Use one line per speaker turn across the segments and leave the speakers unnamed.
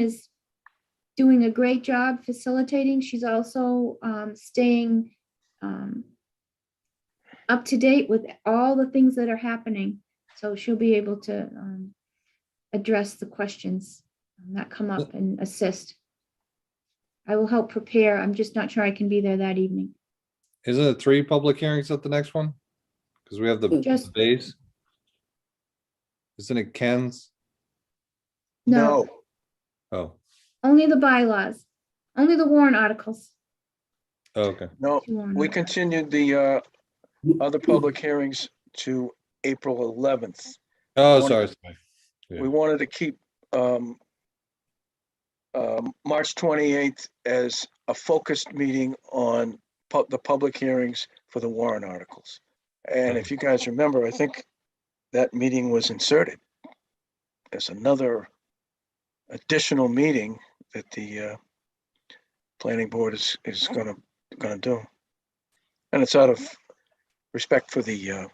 is doing a great job facilitating. She's also um, staying um, up to date with all the things that are happening. So she'll be able to um, address the questions that come up and assist. I will help prepare. I'm just not sure I can be there that evening.
Isn't it three public hearings at the next one? Because we have the
Just,
base. Isn't it Ken's?
no,
Oh,
only the bylaws, only the warrant articles.
oh, okay.
No,
She wanted-
we continued the uh, other public hearings to April 11th.
Oh,
One-
sorry. sorry. Yeah.
We wanted to keep um, um, March 28th as a focused meeting on pub- the public hearings for the Warren articles. And if you guys remember, I think that meeting was inserted as another additional meeting that the uh, planning board is, is gonna, gonna do. And it's out of respect for the, uh,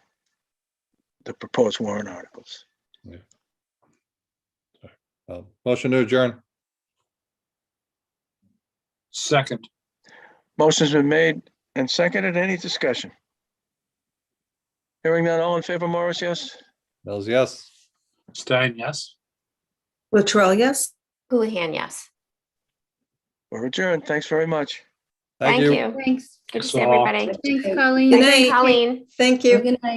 the proposed Warren articles.
Uh, Motion to adjourn.
Second,
Motion's been made and seconded. Any discussion? Hearing none, all in favor, Morris, yes?
Mills, yes.
Stein, yes?
Latrell, yes?
Houlihan, yes.
We're adjourned. Thanks very much.
Thank you.
Thanks.
Good to
So-
see everybody.
Thanks, Colleen.
Good night.
Colleen.
Thank you.
Good night.